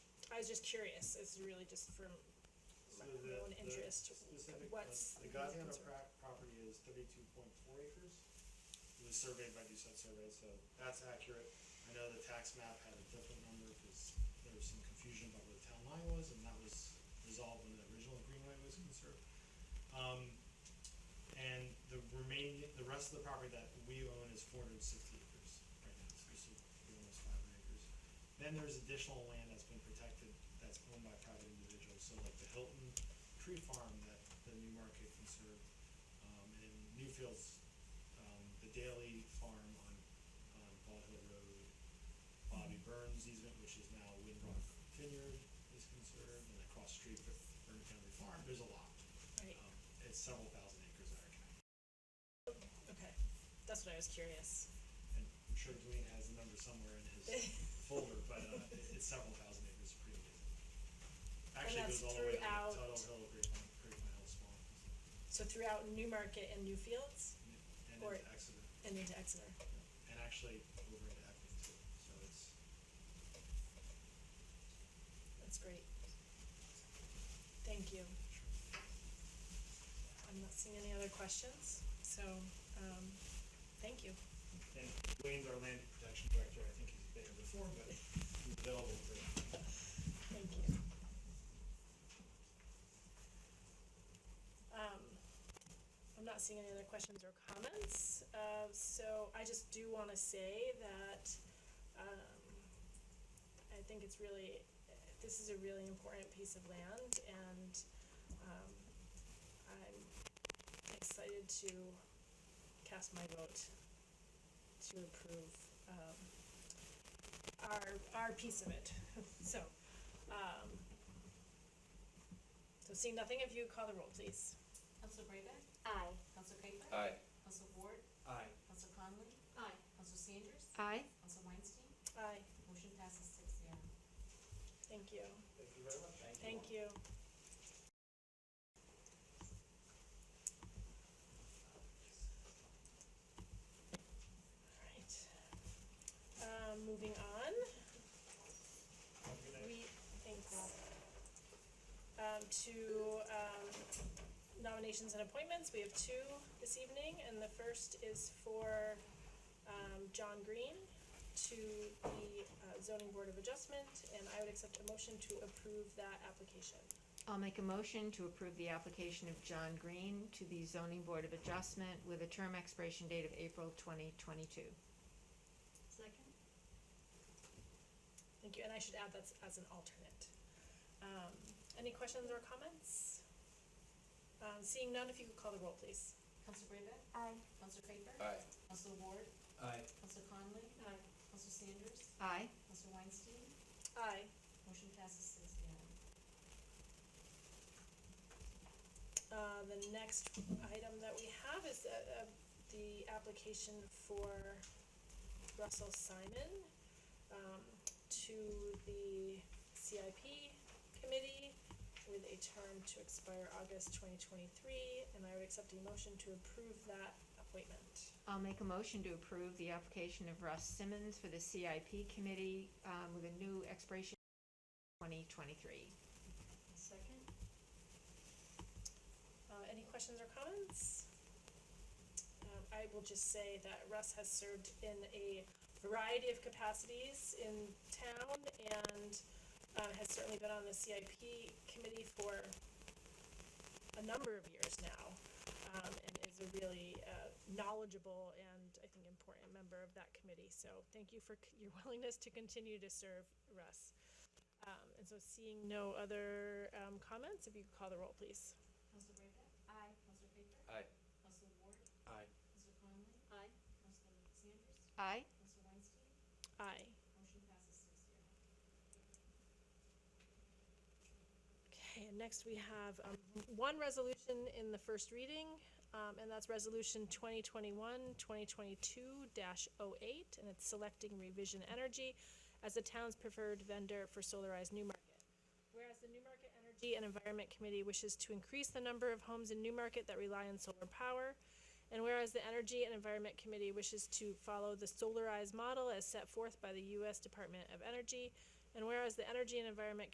was just curious, it's really just from So my the- own the interest, specific, like, what's the The Gosnell concern? pra- property is thirty-two point four acres. It was surveyed by Doucette Survey, so that's accurate. I know the tax map had a different number because there was some confusion about where the town line was, and that was resolved when the original greenway was conserved. Um, and the remaining, the rest of the property that we own is four hundred and sixty acres right now, so it's almost five hundred acres. Then there's additional land that's been protected, that's owned by private individuals, so like the Hilton Tree Farm that the New Market conserved, um, and Newfields, um, the Daly Farm on, on Bald Hill Road, Bobby Burns easement, which is now Windrock Vineyard is conserved, and across the street, Burn Family Farm, there's a lot. Right, Um, it's several thousand acres that are connected. okay, Oh. that's what I was curious. And I'm sure Dwayne has the number somewhere in his folder, but uh, it- it's several thousand acres, pretty amazing. Actually, it that's goes all the way to throughout- Tuttle Hill, Grapevine, Grapevine Hill Swamp, So throughout Newmarket and Newfields and Or- into Exeter, and into Exeter, and actually over into Epping too, so it's, that's great. Thank you. I'm not seeing any other questions, so, um, thank you. And Wayne's our land protection director, I think he's been here before, but he's available for Thank you. Um, I'm not seeing any other questions or comments, uh, so I just do wanna say that, um, I think it's really, this is a really important piece of land and, um, I'm excited to cast my vote to approve, um, our, our piece of it, so, um, so seeing nothing, if you call the roll, please. Council Brayback? Aye. Council Craig? Aye. Council Ward? Aye. Council Conley? Aye. Council Sanders? Aye. Council Weinstein? Aye. Motion passes six zero. Thank you. Thank you very much. Thank you. Alright. Um, moving on, we, thanks. Um, to, um, nominations and appointments, we have two this evening, and the first is for, um, John Green to the uh, zoning board of adjustment, and I would accept a motion to approve that application. I'll make a motion to approve the application of John Green to the zoning board of adjustment with a term expiration date of April twenty twenty-two. Second. Thank you, and I should add that as an alternate. Um, any questions or comments? Um, seeing none, if you could call the roll, please. Council Brayback? Aye. Council Craig? Aye. Council Ward? Aye. Council Conley? Aye. Council Sanders? Aye. Council Weinstein? Aye. Motion passes six zero. Uh, the next item that we have is, uh, uh, the application for Russell Simon, um, to the CIP committee with a term to expire August twenty twenty-three, and I would accept a motion to approve that appointment. I'll make a motion to approve the application of Russ Simmons for the CIP committee, um, with a new expiration twenty twenty-three. Second. Uh, any questions or comments? Um, I will just say that Russ has served in a variety of capacities in town and uh, has certainly been on the CIP committee for a number of years now. Um, and is a really uh, knowledgeable and I think important member of that committee. So thank you for c- your willingness to continue to serve, Russ. Um, and so seeing no other um, comments, if you could call the roll, please. Council Brayback? Aye. Council Craig? Aye. Council Ward? Aye. Council Conley? Aye. Council Sanders? Aye. Council Weinstein? Aye. Motion passes six zero. Okay, and next we have um, one resolution in the first reading, um, and that's Resolution 2021-2022-08, and it's selecting Revision Energy as the town's preferred vendor for solarized New Market. Whereas the New Market Energy and Environment Committee wishes to increase the number of homes in New Market that rely on solar power, and whereas the Energy and Environment Committee wishes to follow the solarized model as set forth by the U.S. Department of Energy, and whereas the Energy and Environment